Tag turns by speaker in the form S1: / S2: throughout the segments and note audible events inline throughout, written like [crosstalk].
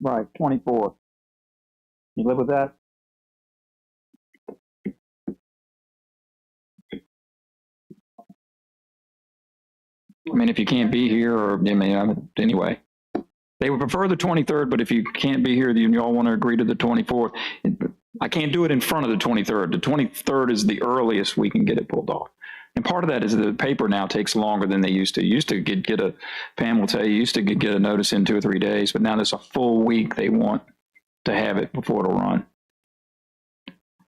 S1: Right, twenty-four. You live with that? I mean, if you can't be here, or, I mean, I'm- anyway. They would prefer the twenty-third, but if you can't be here, then you all want to agree to the twenty-fourth. I can't do it in front of the twenty-third. The twenty-third is the earliest we can get it pulled off. And part of that is the paper now takes longer than they used to. Used to get, get a, Pam will tell you, used to get, get a notice in two or three days, but now there's a full week they want to have it before it'll run.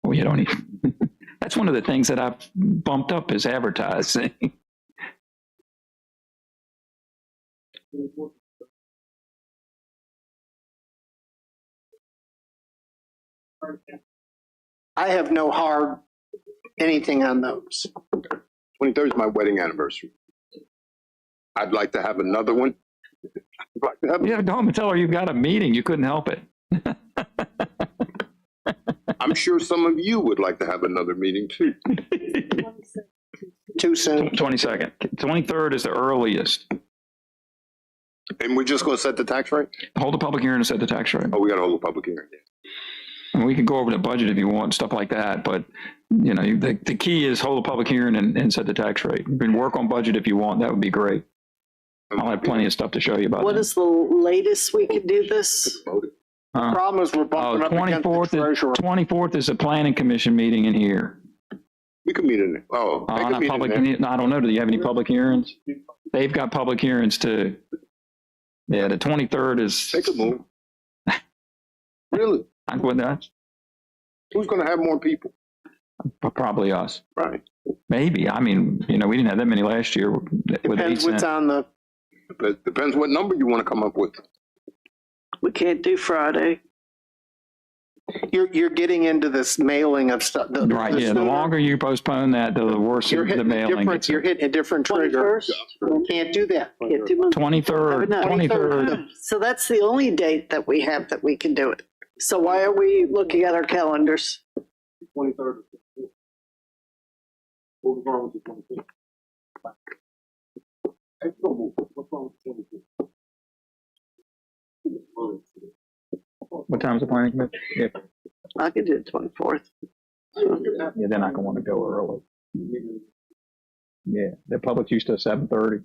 S1: Well, you don't even, [laughs] that's one of the things that I've bumped up is advertising. [laughs]
S2: I have no hard anything on those.
S3: 23rd is my wedding anniversary. I'd like to have another one. I'd like to have-
S1: You have to go home and tell her you've got a meeting. You couldn't help it.
S3: I'm sure some of you would like to have another meeting too.
S2: Too soon.
S1: 22nd. 23rd is the earliest.
S3: And we're just going to set the tax rate?
S1: Hold a public hearing and set the tax rate.
S3: Oh, we got to hold a public hearing.
S1: And we could go over the budget if you want, stuff like that, but, you know, the, the key is hold a public hearing and, and set the tax rate. You can work on budget if you want, that would be great. I'll have plenty of stuff to show you about
S4: What
S1: that.
S4: is the latest we can do this?
S1: Huh?
S2: Problem is we're
S1: Oh,
S2: bumping up against the
S1: 24th, is-
S2: treasurer.
S1: 24th is the planning commission meeting in here.
S3: We could meet in there. Oh,
S1: Uh,
S3: they could
S1: not
S3: meet in
S1: public,
S3: there.
S1: no, I don't know, do you have any public hearings? They've got public hearings too. Yeah, the 23rd is,
S3: They could
S1: [laughs]
S3: move. Really?
S1: I'm going, that's
S3: Who's going to have more people?
S1: probably us.
S3: Right.
S1: Maybe, I mean, you know, we didn't have that many last year with eight
S2: Depends what's
S1: cent.
S2: on the,
S3: But depends what number you want to come up with.
S4: We can't do Friday.
S2: you're, you're getting into this mailing of stuff.
S1: Right, yeah, the
S2: sooner-
S1: longer you postpone that, the worse
S2: You're
S1: the
S2: hitting, a
S1: mailing
S2: different-
S1: gets.
S2: you're hitting a different trigger.
S4: Twenty-first?
S2: Can't do that.
S4: Can't do Monday.
S1: Twenty-third,
S4: Have it not.
S1: twenty-third,
S4: So that's the only date that we have that we can do it. So why are we looking at our calendars?
S5: twenty-third. What was wrong with the twenty-fifth? That's no move. What's wrong with the twenty-fifth?
S1: what time's the planning commission? Yeah,
S4: I could do the twenty-fourth.
S1: yeah, they're not gonna wanna go early. Yeah, the public's used to seven thirty.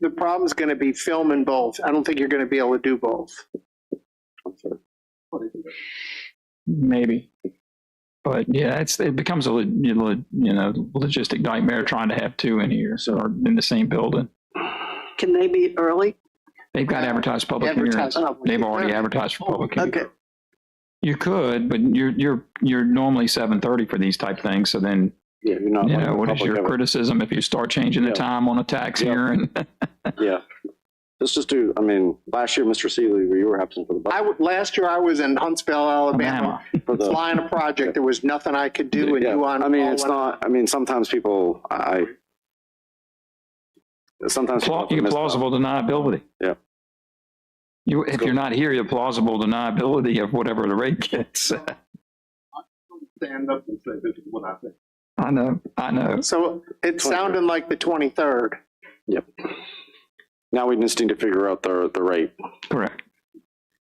S2: The problem's gonna be filming both. I don't think you're gonna be able to do both.
S1: Maybe. But yeah, it's, it becomes a, lo- you lo- you know, logistic nightmare trying to have two in here, so, or in the same building.
S4: Can they be early?
S1: They've got advertised public hearings.
S2: Advertise
S5: Oh,
S2: public.
S1: They've already advertised for public hearings.
S4: Okay,
S1: You could, but you're, you're, you're normally seven thirty for these type things, so then,
S5: Yeah, you're not.
S1: you know, what is your criticism if you start changing the
S5: Yeah.
S1: time on a tax
S5: Yeah.
S1: hearing?
S5: Yeah. Let's just do, I mean, last year, Mr. Seeley, you were absent for the
S2: I,
S5: budget.
S2: w- last year I was in Huntsville, Alabama.
S1: Alabama.
S5: for the-
S2: flying a project, there was nothing I could do and
S5: Yeah,
S2: you on.
S5: I mean,
S2: call
S5: it's
S2: went-
S5: not, I mean, sometimes people, I, I- sometimes.
S1: Pla-
S5: people
S1: You
S5: miss-
S1: plausible deniability.
S5: Yeah.
S1: You, if you're not here, you have plausible deniability of whatever the rate gets.
S5: Stand up and say, this is what I think.
S1: [laughs] I know, I know.
S2: So it sounded like the twenty-third.
S5: Now we just need to figure out the, the rate.
S1: Correct.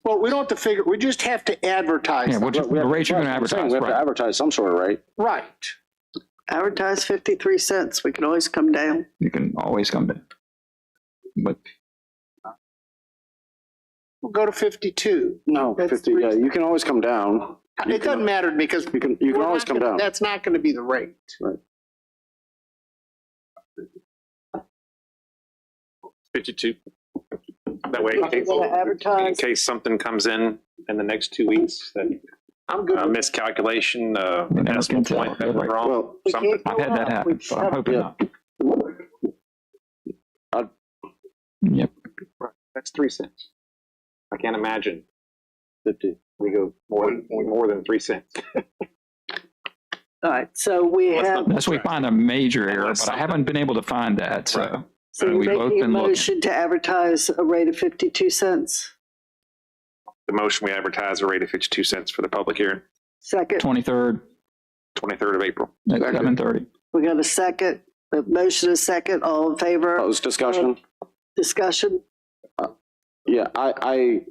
S2: Well, we don't have to figure, we just have to advertise.
S1: Yeah,
S2: them.
S1: what you-
S5: We
S1: the
S5: have-
S1: rate you're going to
S5: I'm saying
S1: advertise,
S5: We have to
S1: right?
S5: advertise some sort of rate.
S2: Right.
S4: advertise fifty-three cents. We can always come down.
S1: You can always come back. But
S2: We'll go to fifty-two.
S5: No,
S2: That's
S5: fifty, yeah, you can always come down. You
S2: It
S5: can-
S2: doesn't matter because.
S5: You can, you can
S2: we're
S5: always
S2: not
S5: come
S2: gonna-
S5: down.
S2: That's not gonna be the rate.
S6: Fifty-two. That way, in case-
S4: We're gonna
S6: in
S4: advertise.
S6: case something comes in in the next two weeks, that
S2: I'm
S6: uh,
S2: good. with
S6: miscalculation, uh,
S1: You never
S6: decimal
S1: can tell.
S6: point that was
S1: Right.
S6: wrong.
S5: Well,
S4: We
S6: Something.
S4: can't go
S1: I've had that
S4: up.
S1: happen,
S4: We
S1: so I'm
S4: have-
S1: hoping
S5: yeah.
S1: not.
S5: I'd-
S1: Yep,
S6: That's three cents. I can't imagine fifty, we go more, than- more than three cents. [laughs]
S4: All right, so we
S6: Let's
S4: have,
S1: unless we find a major error, but
S6: Unless
S1: I
S6: something-
S1: haven't been able to find that, so.
S4: so
S1: uh,
S4: you're
S1: we've both
S4: making a
S1: been looking.
S4: motion to advertise a rate of fifty-two cents.
S6: The motion, we advertise a rate of fifty-two cents for the public hearing,
S4: Second,
S1: Twenty-third
S6: twenty-third of April.
S1: at
S3: Second.
S1: seven thirty.
S4: we got a second, a motion, a second, all in favor,
S5: closed discussion?
S4: discussion?
S5: Uh, Yeah, I, I,